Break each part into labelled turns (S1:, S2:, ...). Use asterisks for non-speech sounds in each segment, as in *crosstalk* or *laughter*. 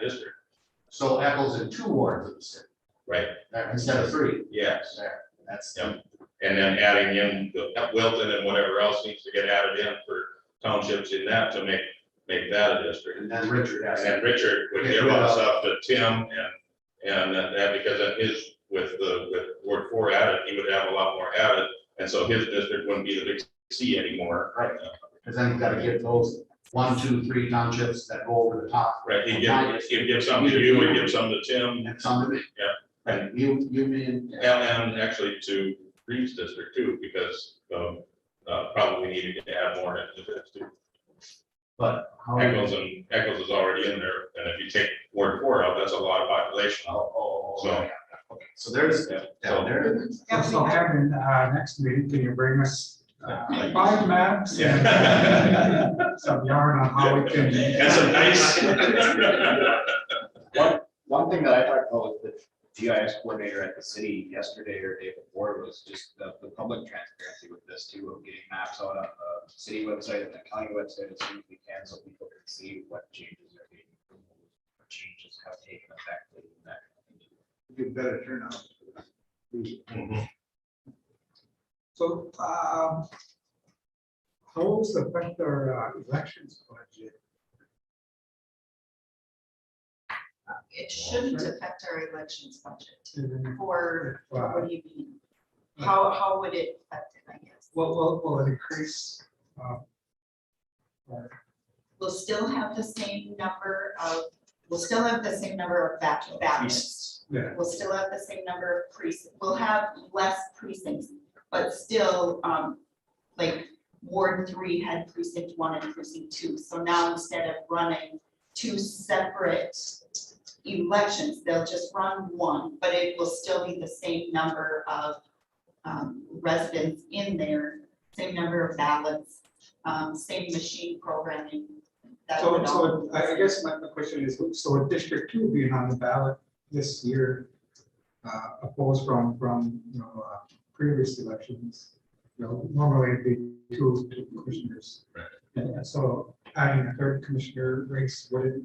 S1: district,
S2: So Eccles in two wards of the city,
S1: right?
S2: uh, instead of three,
S1: Yes.
S2: that's.
S1: Yeah. And then adding in the Wilton and whatever else needs to get added in for townships in that to make, make that a district.
S2: And then Richard
S1: And
S2: has.
S1: then Richard would give us up to Tim and, and that, because that is with the, with Ward Four added, he would have a lot more added. And so his district wouldn't be the big C anymore.
S2: Right. Cause then you've gotta get those one, two, three townships that go over the top
S1: Right, he'd give, he'd give some to you, he'd give some to Tim,
S2: and some of it.
S1: Yeah.
S2: Right, you, you mean,
S1: and, and actually to Reeves District too, because, um, uh, probably needed to add more into this too.
S2: but how,
S1: Echoes and Echoes is already in there, and if you take Ward Four out, that's a lot of population.
S2: oh,
S1: So-
S2: yeah, okay, so there's,
S1: Yeah.
S2: down there,
S3: Also, Kevin, uh, next meeting, can you bring us uh, five maps?
S1: Yeah.
S3: and *laughs* Some yarn on how Oh, we can.
S1: That's a *laughs* nice.
S4: One thing that I talked about with the GIS coordinator at the city yesterday or day before was just the, the public transparency with this too, of getting maps out on the city website and the county website as soon as we can, so people can see what changes are being. approved, what Changes have taken effect. and that kind of thing.
S5: Get better turnout.
S3: So, um, how will this affect our uh, elections budget?
S6: It shouldn't affect our elections budget,
S3: And,
S6: or
S3: uh,
S6: what do you mean? How, how would it affect it, I guess?
S3: Will, will, will it increase? uh, our-
S6: We'll still have the same number of, we'll still have the same number of ba- ballots.
S3: Yeah.
S6: We'll still have the same number of precincts, we'll have less precincts, but still, um, like Ward three had precinct one and precinct two, so now instead of running two separate elections, they'll just run one, but it will still be the same number of um, residents in there, same number of ballots, um, same machine programming. That
S3: So,
S6: would
S3: so
S6: all.
S3: I I guess my my question is, so with District Two being on the ballot this year, uh, opposed from, from, you know, uh, previous elections, you know, normally it'd be two, two commissioners.
S1: Right.
S3: And and so adding a third commissioner race would
S6: It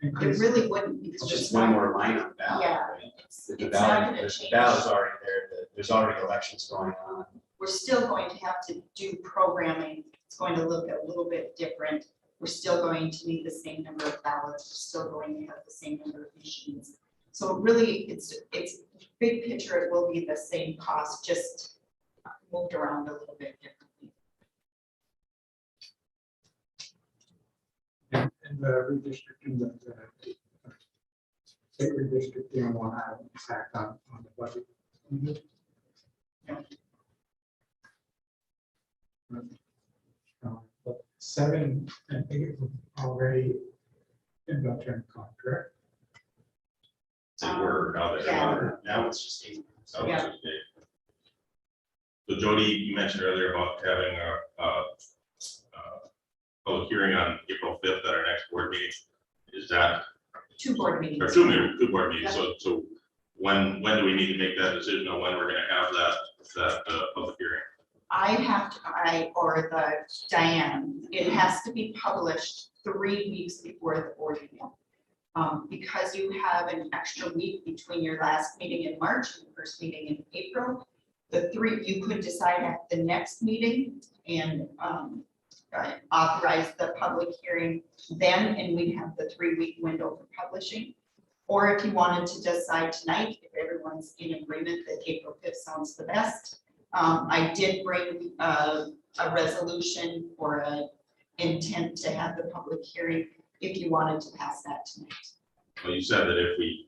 S3: increase.
S6: really wouldn't,
S4: It's
S6: because
S4: just one more line on ballot.
S6: Yeah.
S4: right?
S6: it's
S4: The
S6: it's not
S4: ballot,
S6: gonna
S4: the
S6: change.
S4: ballot's already there, the- there's already elections going on.
S6: We're still going to have to do programming, it's going to look a little bit different. We're still going to need the same number of ballots, we're still going to have the same number of machines. So really, it's, it's, big picture, it will be the same cost, just moved around a little bit differently.
S3: And and the redistricting, the, the state redistricting will have an impact on, on the budget. Uh, but Seven, I think it was already in the term contract.
S1: So we're now there.
S6: Yeah.
S4: Now it's just eight.
S1: So it's just big. So Jody, you mentioned earlier about having a, a, a public hearing on April fifth at our next board meeting. Is that,
S6: Two board meetings.
S1: or two, meeting- two board meetings, so, so when, when do we need to make that decision on when we're gonna have that, that, uh, public hearing?
S6: I have to, I, or the Diane, it has to be published three weeks before the board meeting. Um, because you have an extra week between your last meeting in March and the first meeting in April. The three, you could decide at the next meeting and, um, uh, authorize the public hearing then, and we have the three-week window for publishing. Or if you wanted to decide tonight, if everyone's in agreement that April fifth sounds the best, um, I did bring a, a resolution or a intent to have the public hearing if you wanted to pass that tonight.
S1: Well, you said that if we,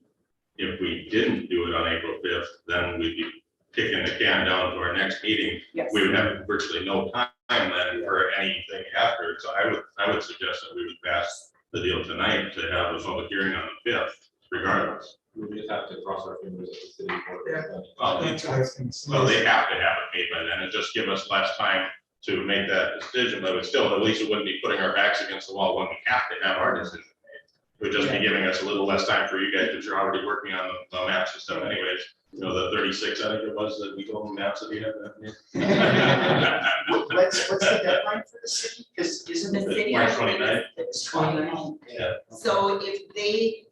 S1: if we didn't do it on April fifth, then we'd be kicking the can down to our next meeting.
S6: Yes.
S1: We would have virtually no time then for anything after, so I would, I would suggest that we would pass the deal tonight to have a public hearing on the fifth regardless.
S7: We just have to cross our fingers at the city board.
S1: Well, they-
S3: I was gonna say.
S1: Well, they have to have it made by then, and just give us less time to make that decision, but it would still, at least it wouldn't be putting our backs against the wall when we have to have our decision made. It would just be giving us a little less time for you guys, because you're already working on the- the maps and stuff anyways, you know, the thirty-six, I think it was, that we told them maps that we had. that made. *laughs*
S4: What's, what's the deadline for the city? Because isn't
S6: The
S4: it
S6: city.
S1: March 29th?
S6: The 29th. So if they